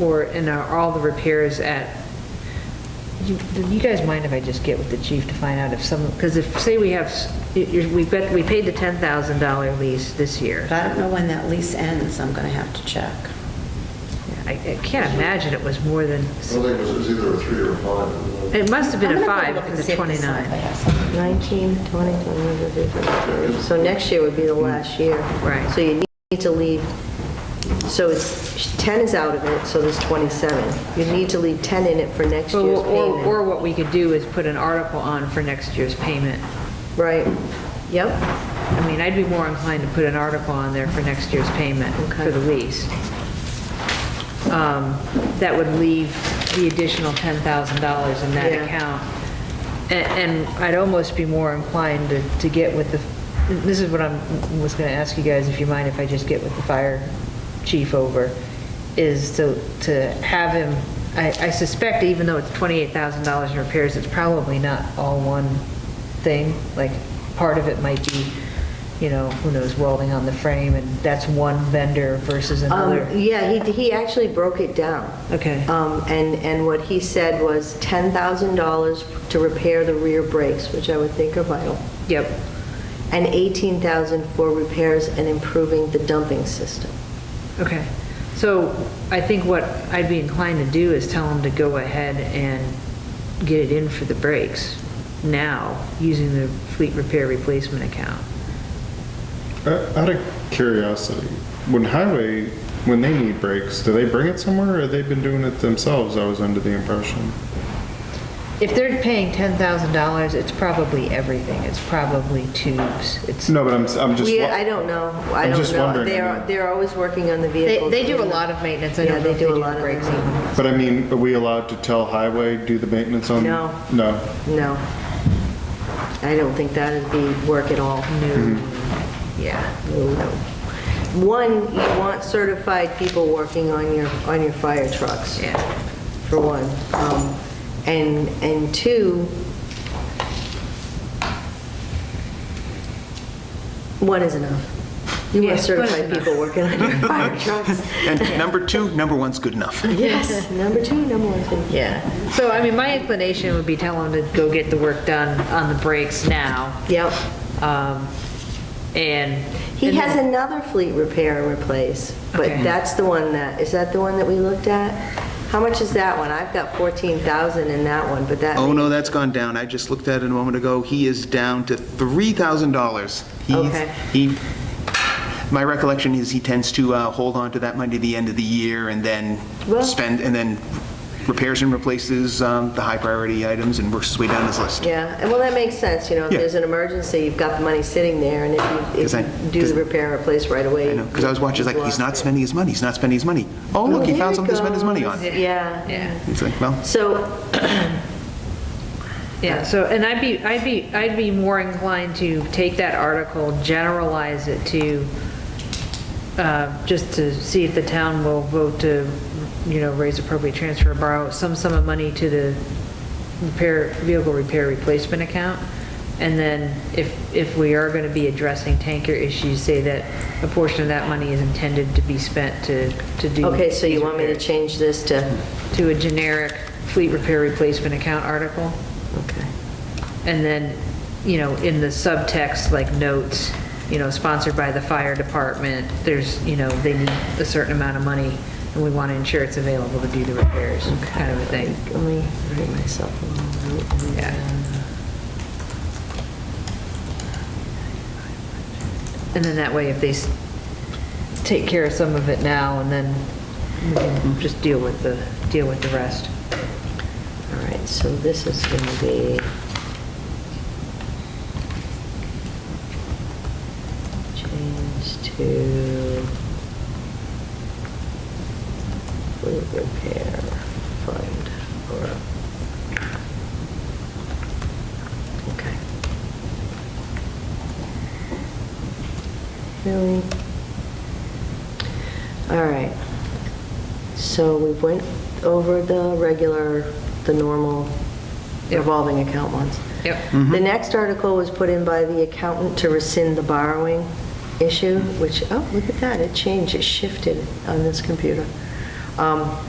or, and are all the repairs at, you do you guys mind if I just get with the chief to find out if some, because if, say we have, s- you- you- we've got, we paid the $10,000 lease this year. But I don't know when that lease ends, I'm going to have to check. I I can't imagine it was more than, I think it was, it was either a three or a five. it must have been I'm a gonna go five, look and because see it's if this- 29. I have something. 19, 20, 21, 22, 23. So next year would be the last year. Right. So you need to leave, so it's, 10 is out of it, so there's 27. You need to leave 10 in it for next Or, year's or- or payment. what we could do is put an article on for next year's payment. Right, yep. I mean, I'd be more inclined to put an article on there for next year's payment for Okay. the lease. Um, That would leave the additional $10,000 in that Yeah. account. A- And I'd almost be more inclined to to get with the, this is what I am was going to ask you guys, if you mind if I just get with the fire chief over, is to to have him, I I suspect even though it's $28,000 in repairs, it's probably not all one thing. Like, part of it might be, you know, who knows, welding on the frame, and that's one vendor versus another. Um, Yeah, he, he actually broke it down. Okay. Um, And, and what he said was $10,000 to repair the rear brakes, which I would think are vital, Yep. and 18,000 for repairs and improving the dumping system. Okay, so I think what I'd be inclined to do is tell them to go ahead and get it in for the brakes now, using the fleet repair replacement account. Uh, Out of curiosity, when highway, when they need breaks, do they bring it somewhere or they've been doing it themselves? I was under the impression. If they're paying ten thousand dollars, it's probably everything, it's probably tubes, it's, No, but I'm, I'm just. We, wa- I don't know, I I'm don't just know. wondering, I They're, mean- they're always working on the they, vehicle. they do a lot of maintenance, I Yeah, don't know they if they do do a the lot of brakes maintenance. even. But I mean, are we allowed to tell highway, do the maintenance on? No. No. No. I don't think that'd be work at all. Yeah, No, no. One, you want certified people working on your, on your fire trucks. yeah. for one. Um, And, and two, one is enough. You Yeah, one want is certified enough. people working on your fire trucks. And number two, number one's good enough. Yes, number two, number one's been Yeah, so I mean, my inclination would be tell them to go get the work done on the brakes now. Yep. Um, And. He and then- has another fleet repair and replace, but Okay. that's the one that, is that the one that we looked at? How much is that one? I've got 14,000 in that one, but that. Oh, no, that's gone down. I just looked at it a moment ago. He is down to $3,000. He's- Okay. He, my recollection is he tends to uh, hold on to that money to the end of the year and then Well- spend, and then repairs and replaces um, the high priority items and works his way down his list. Yeah, and well, that makes sense, you know, if Yeah. there's an emergency, you've got the money sitting there, and if you, 'Cause I- if you do 'cause- the repair and replace right away. I know, because I was watching, you've like, lost he's not it. spending his money, he's not spending his money. Oh, look, he There found it something to spend his money goes. on. Yeah. Yeah. It's like, well, So, Yeah, so, and I'd be, I'd be, I'd be more inclined to take that article, generalize it to, uh, just to see if the town will vote to, you know, raise appropriate transfer, borrow some sum of money to the repair, vehicle repair replacement account. And then if, if we are going to be addressing tanker issues, say that a portion of that money is intended to be spent to, to do. okay, so you these want me to repairs. Hmm. change this to, To a generic fleet repair replacement account article? okay. And then, you know, in the subtext, like notes, you know, sponsored by the fire department, there's, you know, they need a certain amount of money, and we want to ensure it's available to do the repairs, kind of a thing. Let me write myself a little note. and Yeah. then- And then that way, if they s- take care of some of it now, and then we can just deal with the, deal with the rest. All right, so this is going to be... Change to... Fleet repair fund, or... Okay. Really? All right. So we went over the regular, the normal Yep. revolving account ones. Yep. The next article was put in by the accountant to rescind the borrowing issue, which, oh, look at that, it changed, it shifted on this computer. Um,